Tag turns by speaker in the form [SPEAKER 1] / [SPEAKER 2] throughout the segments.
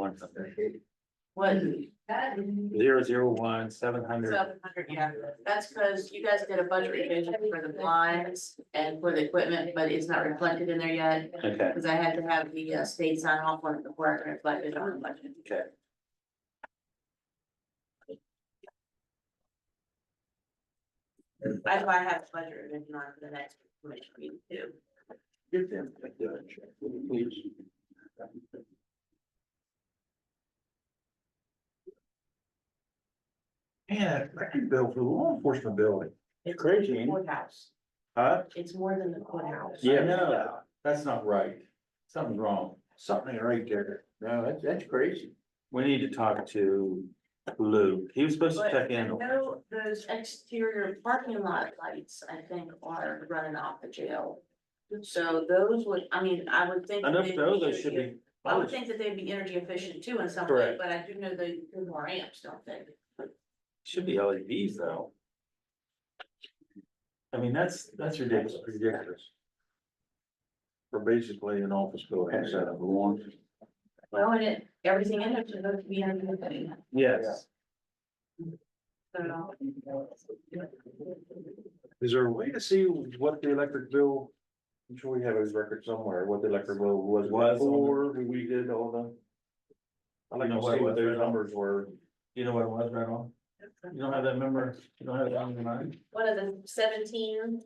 [SPEAKER 1] one's up there.
[SPEAKER 2] What, that,
[SPEAKER 1] Zero, zero, one, seven hundred.
[SPEAKER 2] seven hundred, yeah, that's because you guys did a budget revision for the blinds and for the equipment, but it's not reflected in there yet.
[SPEAKER 1] Okay,
[SPEAKER 2] Cause I had to have the uh, state sign off on it before I could reflect it on the budget.
[SPEAKER 1] okay.
[SPEAKER 2] That's why I have the budget revision on for the next commission meeting too.
[SPEAKER 3] Yeah, record bill for the law enforcement building,
[SPEAKER 2] It's
[SPEAKER 1] Crazy, ain't it?
[SPEAKER 2] Courthouse,
[SPEAKER 3] huh?
[SPEAKER 2] it's more than the courthouse.
[SPEAKER 1] Yeah.
[SPEAKER 3] No, That's not right. Something's wrong. Something ain't right there. No, that's, that's crazy.
[SPEAKER 1] We need to talk to Lou. He was supposed to
[SPEAKER 2] But
[SPEAKER 1] check
[SPEAKER 2] I
[SPEAKER 1] in.
[SPEAKER 2] know those exterior parking lot lights, I think, are running off the jail. So those would, I mean, I would think.
[SPEAKER 1] I know
[SPEAKER 2] they'd
[SPEAKER 1] those they should
[SPEAKER 2] energy-
[SPEAKER 1] be.
[SPEAKER 2] I would think that they'd be energy efficient too in some way,
[SPEAKER 1] Correct.
[SPEAKER 2] but I do know they do more amps, don't they?
[SPEAKER 1] Should be LEDs though. I mean, that's, that's ridiculous.
[SPEAKER 3] That's ridiculous. For basically an office building set up.
[SPEAKER 2] Well, and it, everything in it's supposed to be energy efficient.
[SPEAKER 1] Yes.
[SPEAKER 2] So
[SPEAKER 3] Is there a way to see what the electric bill? I'm sure we have his record somewhere, what the electric bill was
[SPEAKER 1] Was on-
[SPEAKER 3] before we did all the. I'd like
[SPEAKER 1] You know
[SPEAKER 3] to
[SPEAKER 1] what
[SPEAKER 3] see
[SPEAKER 1] it
[SPEAKER 3] what
[SPEAKER 1] was
[SPEAKER 3] those
[SPEAKER 1] right on?
[SPEAKER 3] numbers were.
[SPEAKER 1] You know what it was right on? You don't have that member, you don't have that on your mind?
[SPEAKER 2] one of the seventeen,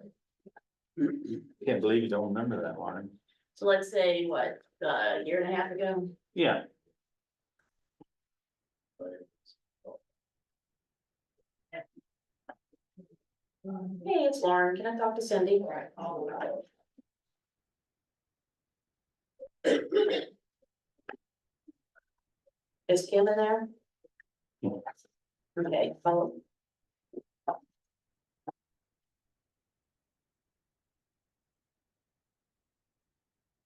[SPEAKER 1] Can't believe you don't remember that one.
[SPEAKER 2] so let's say what, a year and a half ago,
[SPEAKER 1] Yeah,
[SPEAKER 2] hey, it's Lauren, can I talk to Cindy? Is Kim in there?
[SPEAKER 1] No.
[SPEAKER 2] Okay, follow.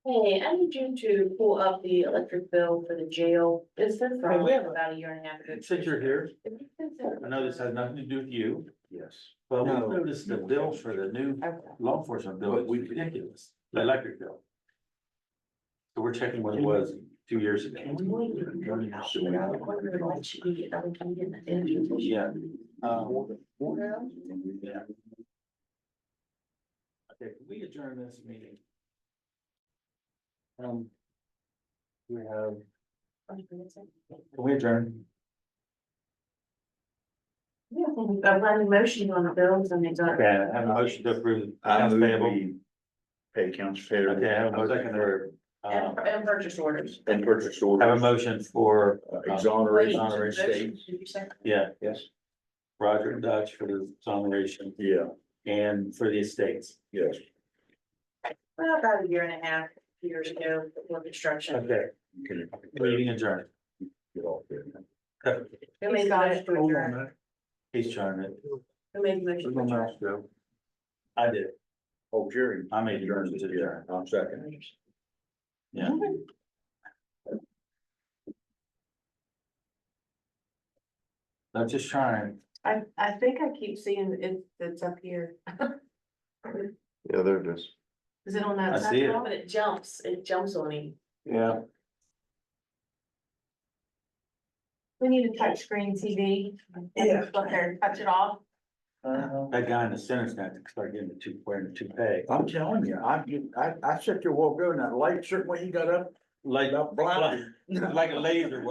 [SPEAKER 2] Hey, I need you to pull up the electric bill for the jail. It's been from
[SPEAKER 1] Hey, we have a-
[SPEAKER 2] about a year and a half ago.
[SPEAKER 1] since you're here, I know this has nothing to do with you,
[SPEAKER 3] Yes.
[SPEAKER 1] but we
[SPEAKER 3] No.
[SPEAKER 1] noticed the bill for the new
[SPEAKER 2] Okay.
[SPEAKER 1] law enforcement bill, we ridiculous, the electric bill. So we're checking what it was two years ago. Yeah.
[SPEAKER 3] Um,
[SPEAKER 1] Yeah. Okay, can we adjourn this meeting? Um. We have, can we adjourn?
[SPEAKER 2] Yeah, I'm running motion on the bills and it's on.
[SPEAKER 1] Okay, I have a motion to approve.
[SPEAKER 3] I
[SPEAKER 1] accounts
[SPEAKER 3] move
[SPEAKER 1] payable.
[SPEAKER 3] we pay accounts payable.
[SPEAKER 1] Okay, I have a
[SPEAKER 3] I'll
[SPEAKER 1] motion
[SPEAKER 3] second
[SPEAKER 1] for, uh,
[SPEAKER 2] And, and purchase orders.
[SPEAKER 3] that. And purchase
[SPEAKER 1] have a
[SPEAKER 3] order,
[SPEAKER 1] motion for, Wait.
[SPEAKER 3] exoneration,
[SPEAKER 1] Honorary
[SPEAKER 2] Motion,
[SPEAKER 1] state.
[SPEAKER 2] did you say?
[SPEAKER 1] yeah,
[SPEAKER 3] yes,
[SPEAKER 1] Roger Dutch for the exoneration
[SPEAKER 3] yeah,
[SPEAKER 1] and for the estates.
[SPEAKER 3] yes.
[SPEAKER 2] Well, about a year and a half, two years ago, before construction.
[SPEAKER 1] Okay,
[SPEAKER 3] Can you
[SPEAKER 1] meeting adjourned.
[SPEAKER 3] get off there?
[SPEAKER 2] Who made the motion to
[SPEAKER 3] Hold on a
[SPEAKER 2] adjourn?
[SPEAKER 3] minute.
[SPEAKER 1] He's trying it.
[SPEAKER 2] Who made the motion to
[SPEAKER 3] There's no
[SPEAKER 2] adjourn?
[SPEAKER 3] mouse though.
[SPEAKER 1] I did.
[SPEAKER 3] Oh, Jerry.
[SPEAKER 1] I made the motion to
[SPEAKER 3] Yeah,
[SPEAKER 1] adjourn.
[SPEAKER 3] I'm second.
[SPEAKER 1] Yeah. I'm just trying.
[SPEAKER 2] I, I think I keep seeing it, it's up here.
[SPEAKER 3] Yeah, there it is.
[SPEAKER 2] Is it on
[SPEAKER 1] I
[SPEAKER 2] that?
[SPEAKER 1] see it.
[SPEAKER 2] But it jumps, it jumps on me.
[SPEAKER 3] Yeah.
[SPEAKER 4] We need a touchscreen TV. Yeah. Look there, touch it off.
[SPEAKER 1] That guy in the center's gonna have to start getting the two, wearing the toupee.
[SPEAKER 3] Uh-huh. I'm telling you, I, you- I, I sit there while going, that light, certain way he got up,
[SPEAKER 1] Like,
[SPEAKER 3] got blinded.
[SPEAKER 1] like a laser